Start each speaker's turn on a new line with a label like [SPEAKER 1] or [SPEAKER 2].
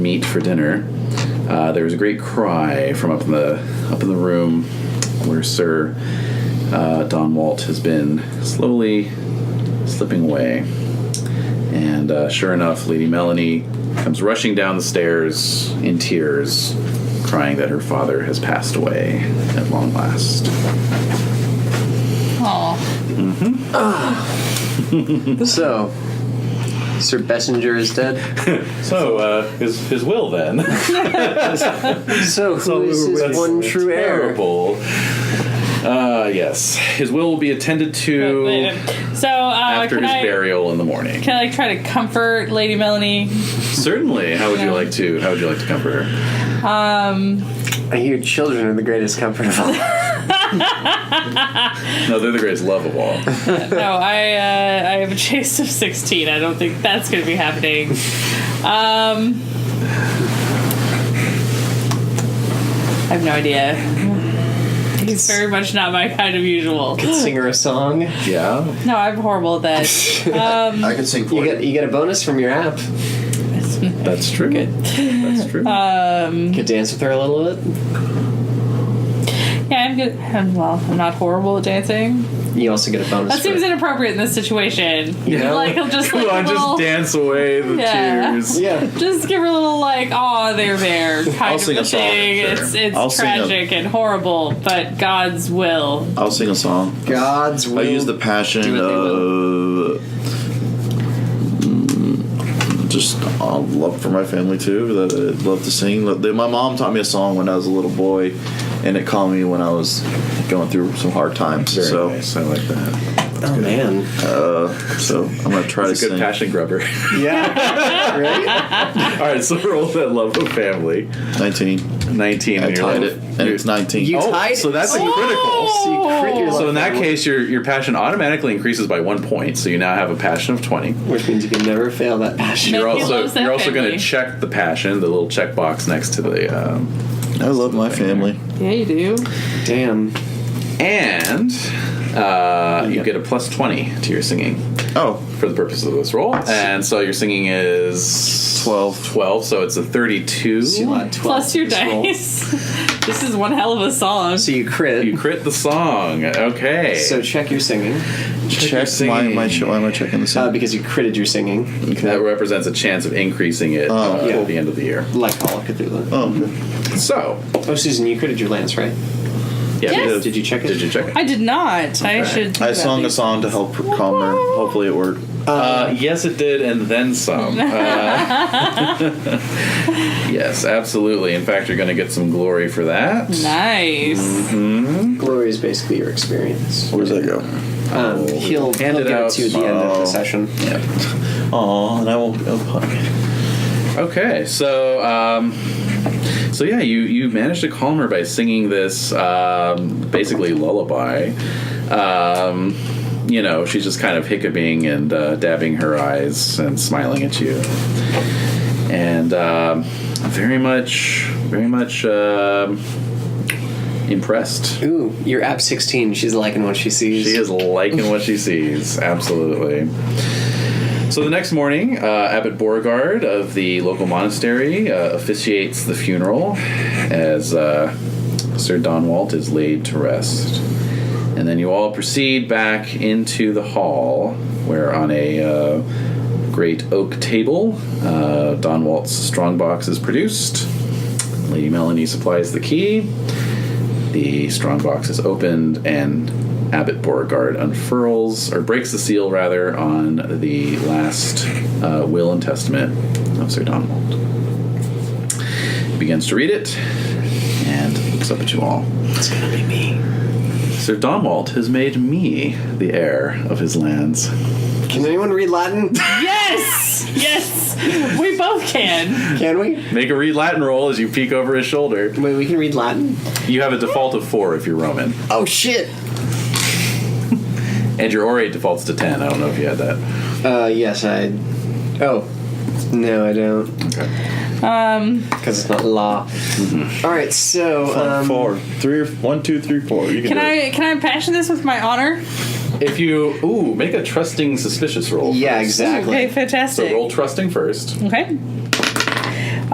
[SPEAKER 1] meat for dinner, uh, there was a great cry from up in the up in the room where Sir uh, Don Walt has been slowly slipping away, and uh, sure enough, Lady Melanie comes rushing down the stairs in tears, crying that her father has passed away at long last.
[SPEAKER 2] Aw.
[SPEAKER 3] So, Sir Bessinger is dead.
[SPEAKER 4] So, uh, his, his will then.
[SPEAKER 3] So, who is his one true heir?
[SPEAKER 4] Terrible. Uh, yes.
[SPEAKER 1] His will will be attended to
[SPEAKER 2] So uh,
[SPEAKER 1] after
[SPEAKER 2] can
[SPEAKER 1] his
[SPEAKER 2] I
[SPEAKER 1] burial in the morning.
[SPEAKER 2] can I like, try to comfort Lady Melanie?
[SPEAKER 1] Certainly. How would you like to? How would you like to comfort her?
[SPEAKER 2] Um,
[SPEAKER 3] I hear children are the greatest comfort of all.
[SPEAKER 1] No, they're the greatest love of all.
[SPEAKER 2] no, I uh, I have a chase of sixteen. I don't think that's going to be happening. Um, I have no idea. He's very much not my kind of usual.
[SPEAKER 3] Sing her a song. You
[SPEAKER 4] Yeah.
[SPEAKER 2] No, I'm horrible at that.
[SPEAKER 5] I can sing for you.
[SPEAKER 3] get you get a bonus from your app. You
[SPEAKER 1] That's true. That's true.
[SPEAKER 3] could dance with her a little bit.
[SPEAKER 2] Yeah, I'm good. I'm, well, I'm not horrible at dancing.
[SPEAKER 3] You also get a bonus.
[SPEAKER 2] That
[SPEAKER 3] for
[SPEAKER 2] seems inappropriate in this situation.
[SPEAKER 3] You know?
[SPEAKER 2] Like, he'll just
[SPEAKER 1] Come
[SPEAKER 2] like
[SPEAKER 1] on,
[SPEAKER 2] little-
[SPEAKER 1] just dance away the
[SPEAKER 2] Yeah.
[SPEAKER 1] tears.
[SPEAKER 3] yeah.
[SPEAKER 2] just give her a little like, oh, they're there kind
[SPEAKER 5] I'll
[SPEAKER 2] of
[SPEAKER 5] sing
[SPEAKER 2] a
[SPEAKER 5] a song,
[SPEAKER 2] thing.
[SPEAKER 5] sure.
[SPEAKER 2] It's it's
[SPEAKER 5] I'll sing a-
[SPEAKER 2] tragic and horrible, but God's will.
[SPEAKER 5] I'll sing a song.
[SPEAKER 3] God's will.
[SPEAKER 5] I use the passion
[SPEAKER 3] do what they
[SPEAKER 5] of Mm, just uh, love for my family too. That I love to sing. Lo- they- My mom taught me a song when I was a little boy, and it calmed me when I was going through some hard times.
[SPEAKER 1] Very
[SPEAKER 5] so,
[SPEAKER 1] nice. I like that.
[SPEAKER 3] oh man.
[SPEAKER 5] so I'm gonna try
[SPEAKER 1] That's
[SPEAKER 5] to
[SPEAKER 1] a good
[SPEAKER 5] sing.
[SPEAKER 1] passion grubber.
[SPEAKER 3] Yeah. right.
[SPEAKER 1] All right, so roll that love of family.
[SPEAKER 5] Nineteen.
[SPEAKER 1] 19.
[SPEAKER 5] I
[SPEAKER 1] your
[SPEAKER 5] tied
[SPEAKER 1] love-
[SPEAKER 5] it, and it's nineteen.
[SPEAKER 3] You
[SPEAKER 1] Oh,
[SPEAKER 3] tied.
[SPEAKER 1] so that's
[SPEAKER 3] so
[SPEAKER 1] a critical.
[SPEAKER 3] you crit your
[SPEAKER 1] So in that
[SPEAKER 3] luck,
[SPEAKER 1] case, your your passion automatically increases by one point. So you now have a passion of 20.
[SPEAKER 3] which means you can never fail that passion.
[SPEAKER 1] You're
[SPEAKER 2] He
[SPEAKER 1] also
[SPEAKER 2] loves that
[SPEAKER 1] you're also going to
[SPEAKER 2] family.
[SPEAKER 1] check the passion, the little checkbox next to the. Um,
[SPEAKER 5] I love my family.
[SPEAKER 2] Yeah, you do.
[SPEAKER 3] Damn.
[SPEAKER 1] and uh, you get a plus 20 to your singing
[SPEAKER 5] Oh,
[SPEAKER 1] for the purpose of this roll. And so your singing is
[SPEAKER 5] 12.
[SPEAKER 1] 12, so it's a 32.
[SPEAKER 2] Plus your dice. this is one hell of a song.
[SPEAKER 3] So you crit.
[SPEAKER 1] You crit the song. Okay.
[SPEAKER 3] so check your singing
[SPEAKER 1] your
[SPEAKER 5] check. Why am I?
[SPEAKER 1] singing.
[SPEAKER 5] che- Why am I checking this?
[SPEAKER 3] uh,
[SPEAKER 5] out?
[SPEAKER 3] because you critted your singing,
[SPEAKER 1] that represents a chance of increasing it uh,
[SPEAKER 3] yeah.
[SPEAKER 1] at the end of the year.
[SPEAKER 3] like Call of Cthulhu.
[SPEAKER 5] oh, okay.
[SPEAKER 1] So,
[SPEAKER 3] Oh, Susan, you critted your lance, right?
[SPEAKER 1] yeah.
[SPEAKER 2] Yes.
[SPEAKER 1] because-
[SPEAKER 3] Did you check it?
[SPEAKER 1] Did you check it?
[SPEAKER 2] I did not. I
[SPEAKER 1] Okay.
[SPEAKER 2] should.
[SPEAKER 5] I sung a song to help calm her. Hopefully, it worked.
[SPEAKER 1] Uh, yes, it did, and then some. Uh, yes, absolutely. In fact, you're going to get some glory for that.
[SPEAKER 2] Nice.
[SPEAKER 5] Mm.
[SPEAKER 3] Glory is basically your experience.
[SPEAKER 5] Where does that go?
[SPEAKER 3] Um, he'll
[SPEAKER 1] Hand
[SPEAKER 3] he'll
[SPEAKER 1] it
[SPEAKER 3] give
[SPEAKER 1] Oh, out
[SPEAKER 3] it to you at the end of
[SPEAKER 5] tomorrow.
[SPEAKER 3] the session.
[SPEAKER 5] Aw, and I won't. Oh, okay.
[SPEAKER 1] Okay, so um, so yeah, you you managed to calm her by singing this um, basically lullaby. Um, you know, she's just kind of hiccuping and uh, dabbing her eyes and smiling at you, and um, very much, very much um impressed.
[SPEAKER 3] Ooh, you're app 16. She's liking what she sees.
[SPEAKER 1] She is liking what she sees. Absolutely. So the next morning, uh, Abbot Beauregard of the local monastery uh, officiates the funeral as uh, Sir Donwalt is laid to rest. And then you all proceed back into the hall where, on a uh, great oak table, uh, Donwalt's strongbox is produced. Lady Melanie supplies the key. The strongbox is opened, and Abbot Beauregard unfurls, or breaks the seal, rather, on the last uh, will and testament of Sir Donald. He begins to read it and looks up at you all.
[SPEAKER 3] It's gonna be me.
[SPEAKER 1] Sir Donwalt has made me the heir of his lands.
[SPEAKER 3] Can anyone read Latin?
[SPEAKER 2] Yes. Yes. We both can.
[SPEAKER 3] Can we?
[SPEAKER 1] Make a read Latin roll as you peek over his shoulder.
[SPEAKER 3] Wait, we can read Latin?
[SPEAKER 1] You have a default of four if you're Roman,
[SPEAKER 3] Oh, shit!
[SPEAKER 1] and your orate defaults to ten. I don't know if you had that.
[SPEAKER 3] Uh, yes, I. Oh. No, I don't.
[SPEAKER 1] Okay.
[SPEAKER 2] Um.
[SPEAKER 3] Because it's not law.
[SPEAKER 1] Mm-hmm.
[SPEAKER 3] Alright, so. Um,
[SPEAKER 5] four, three, one, two, three, four. You
[SPEAKER 2] Can
[SPEAKER 5] do it.
[SPEAKER 2] I can I passion this with my honor?
[SPEAKER 1] If you ooh, make a trusting suspicious roll.
[SPEAKER 3] Yeah,
[SPEAKER 1] first.
[SPEAKER 3] exactly.
[SPEAKER 2] Okay. Fantastic.
[SPEAKER 1] So roll trusting first.
[SPEAKER 2] Okay.